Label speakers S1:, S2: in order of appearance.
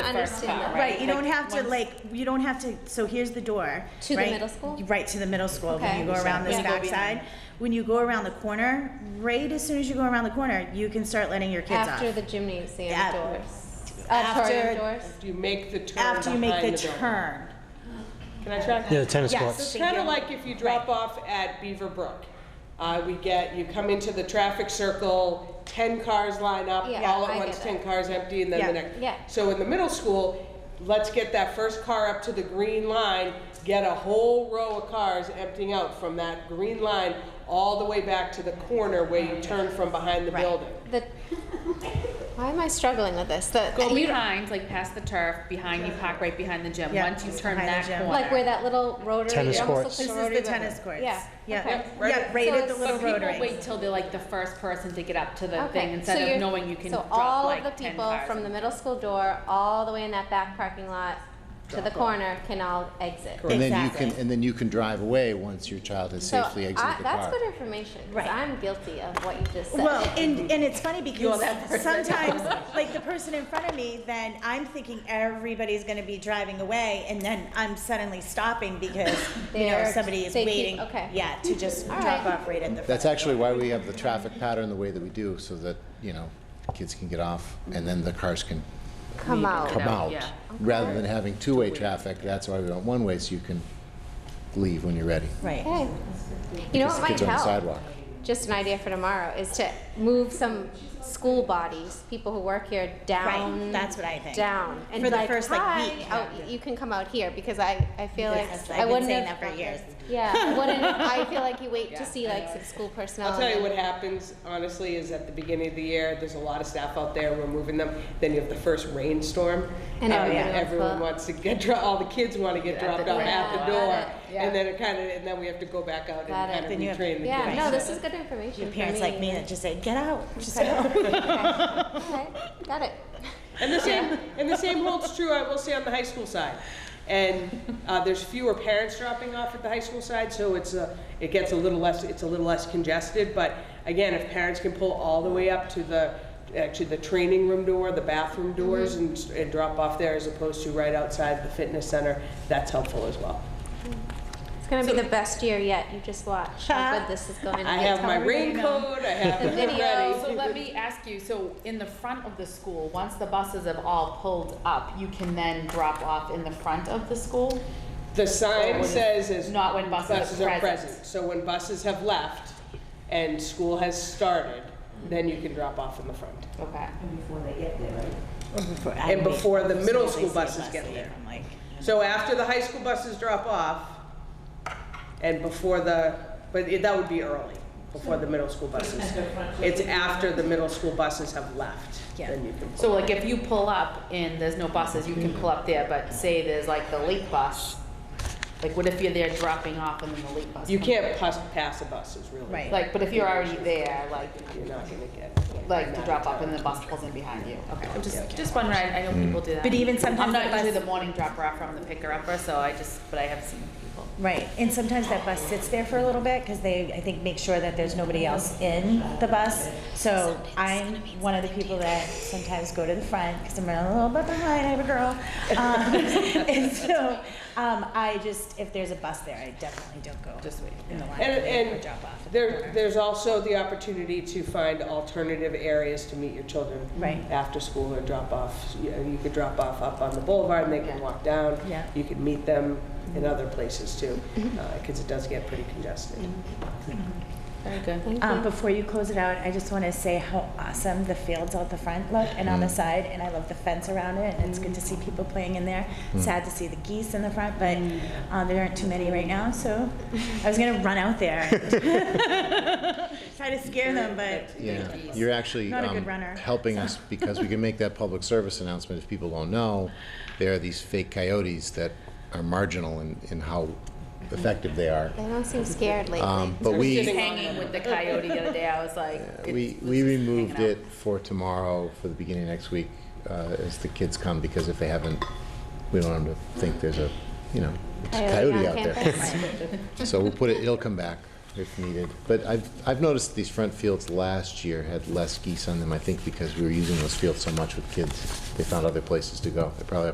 S1: the first
S2: understand that.
S1: car, right?
S3: Right, you don't
S1: Like,
S3: have to
S1: once-
S3: like, you don't have to, so here's the door.
S1: To the
S3: right?
S1: middle school?
S3: Right, to the middle school, when
S1: Okay.
S3: you go around this
S1: Yeah. When you go
S3: backside. When you go around the corner, right as soon as you go around the corner, you can start letting your kids
S1: After
S3: off.
S1: the gymnasium
S3: Yeah.
S1: doors.
S3: After-
S1: Auditorium doors.
S2: You make the turn
S3: After you make
S2: behind
S3: the
S2: building.
S3: turn.
S2: Can I try?
S4: Yeah, the tennis
S3: Yes.
S4: courts.
S2: It's
S3: Thank
S2: kind of
S3: you.
S2: like if you drop off at Beaver Brook. Uh, we get, you come into the traffic circle, ten cars line up,
S1: Yeah,
S2: all
S1: I
S2: at
S1: get
S2: once,
S1: that.
S2: ten cars empty, and then the
S3: Yeah.
S2: next.
S1: Yeah.
S2: So in the middle school, let's get that first car up to the green line, get a whole row of cars emptying out from that green line all the way back to the corner where you turn from behind the
S3: Right.
S2: building.
S1: The, why am I struggling with this? The,
S5: Go
S1: you-
S5: behind, like past the turf, behind you park right behind the gym.
S3: Yeah,
S5: Once you
S3: just
S5: turn
S3: behind the
S5: that
S3: gym.
S5: corner.
S1: like where that little rotary. it
S4: Tennis
S1: almost
S4: courts.
S1: looks like
S3: This
S1: a
S3: is
S1: rotary
S3: the
S1: button.
S3: tennis courts.
S1: Yeah.
S3: Yeah,
S1: okay.
S2: right
S3: yeah,
S2: at-
S3: right
S1: So
S3: at the
S1: it's-
S3: little
S1: But
S5: But people
S3: rotary.
S5: wait till they're like the first person to get up to the
S1: Okay,
S5: thing
S1: so
S5: instead
S1: you're-
S5: of knowing you can
S1: so
S5: drop
S1: all
S5: like
S1: of the
S5: 10
S1: people
S5: cars
S1: from
S5: in
S1: the middle school door all the way in that back parking lot to the corner can all exit.
S6: And then you can,
S3: Exactly.
S6: and then you can drive away once your child has
S1: So
S6: safely
S1: I-
S6: exited the
S1: that's
S6: car.
S1: good information because
S3: Right.
S1: I'm guilty of what you just said.
S3: Well, and, and it's funny because sometimes, like the person in front of me, then I'm thinking everybody's gonna be driving away, and then I'm suddenly stopping because, you know,
S1: They're-
S3: somebody is
S1: they keep-
S3: waiting.
S1: okay.
S3: Yeah, to just
S1: All
S3: drop
S1: right.
S3: off right at the front.
S6: That's actually why we have the traffic pattern the way that we do, so that, you know, kids can get off and then the cars can
S1: Come out.
S6: come out.
S5: yeah.
S6: Rather than having two-way traffic, that's why we want one-way, so you can leave when you're ready.
S3: Right.
S1: Okay. You know what
S6: Because the
S1: might
S6: kids are on the
S1: help?
S6: sidewalk.
S1: Just an idea for tomorrow is to move some school bodies, people who work here, down.
S3: Right, that's what I think.
S1: Down. and
S3: For the
S1: like,
S3: first, like,
S1: "Hi,
S3: week."
S1: out- You can come out here because I, I feel like.
S3: Yes, I've
S1: I
S3: been
S1: wouldn't
S3: saying
S1: have-
S3: that for years.
S1: Yeah, I wouldn't, I feel like you wait to see like some school personnel.
S2: I'll tell you what happens, honestly, is at the beginning of the year, there's a lot of staff out there, we're moving them, then you have the first rainstorm.
S1: And
S2: um,
S1: everybody wants
S2: Everyone
S1: to-
S2: wants to get, dro- all the kids want to get
S5: Yeah, at the
S2: dropped off
S5: door.
S2: at
S1: Got
S2: the door.
S1: it.
S2: And then it kind of, and then we have to go back out and
S1: Got it.
S2: kind of
S3: Then you have-
S2: retrain the kids.
S1: Yeah,
S3: Right.
S1: no, this is good information
S3: Your
S1: for
S3: parents like me that just say, get out, just go.
S1: Okay, got it.
S2: And the same, and the same holds true, I will say, on the high school side. And uh, there's fewer parents dropping off at the high school side, so it's a, it gets a little less, it's a little less congested. But again, if parents can pull all the way up to the, actually the training room door, the bathroom
S1: Mm-hmm.
S2: doors, and, s- and drop off there as opposed to right outside the fitness center, that's helpful as well.
S1: It's gonna be the best year yet, you just watch how good this is going to be.
S2: I have my
S5: know.
S2: raincoat, I have
S1: The
S2: it ready.
S1: video.
S5: So let me ask you, so in the front of the school, once the buses have all pulled up, you can then drop off in the front of the school?
S2: The sign
S5: When-
S2: says is.
S5: not when buses are present.
S2: So when buses have left and school has started, then you can drop off in the front.
S5: Okay.
S3: Before- I
S2: And
S3: wait
S2: before the
S3: for
S2: middle
S3: somebody
S2: school
S3: to say
S2: buses
S3: bus
S2: get
S3: leave.
S2: there.
S3: I'm like,
S2: So after the high school buses drop off and before the, but it- that would be early, before the middle school buses. It's after the middle school buses have left,
S3: Yeah.
S2: then you can. pull.
S5: So like if you pull up and there's no buses, you can pull up there, but say there's like the late bus, like what if you're there dropping off and then the late bus?
S2: You
S5: comes?
S2: can't pass, pass a bus is really.
S3: Right.
S5: Like, but if you're already there, like,
S2: You're not gonna get.
S5: like to drop off and the bus pulls in behind you, okay, I'm just, just wondering, I know people do that.
S3: But even sometimes
S5: I'm
S3: the
S5: not
S3: bus-
S5: usually the morning dropper off from the picker upper, so I just, but I have seen people.
S3: Right, and sometimes that bus sits there for a little bit, because they, I think, make sure that there's nobody else in the bus. So I'm one of the people that sometimes go to the front, because I'm running a little bit behind, I have a girl. Um, And so, um, I just, if there's a bus there, I definitely don't go
S5: Just wait.
S3: in the line
S2: And,
S3: or
S2: and
S3: drop off. at the
S2: there,
S3: corner.
S2: there's also the opportunity to find alternative areas to meet your children.
S3: Right.
S2: After school or drop off, you know, you could drop off up on the boulevard and they can walk down.
S3: Yeah. Mm-hmm.
S2: You could meet them in other places too, because it does get pretty congested.
S5: Very good.
S3: Um, before you close it out, I just want to say how awesome the fields out the front look and on the side, and I love the fence around it, and it's good to see people playing in there. Sad to see the geese in the front, but uh, there aren't too many right now, so I was gonna run out there. Try to scare them, but
S6: Yeah, you're actually.
S3: Not a
S6: um,
S3: good runner.
S6: Helping us because we can make that public service announcement if people don't know. There are these fake coyotes that are marginal in, in how effective they are.
S1: They don't seem scared lately.
S6: Um, But we.
S5: Just hanging with the coyote the other day, I was like. it
S6: We,
S5: was
S6: we
S5: just hanging
S6: removed
S5: out.
S6: it for tomorrow, for the beginning of next week, uh, as the kids come, because if they haven't, we don't want them to think there's a, you know, it's a
S1: Coyote
S6: coyote
S1: on
S6: out there. So we'll put it, it'll come back. if needed. But I've, I've noticed these front fields last year had less geese on them, I think because we were using those fields so much with kids. They found other places to go. They probably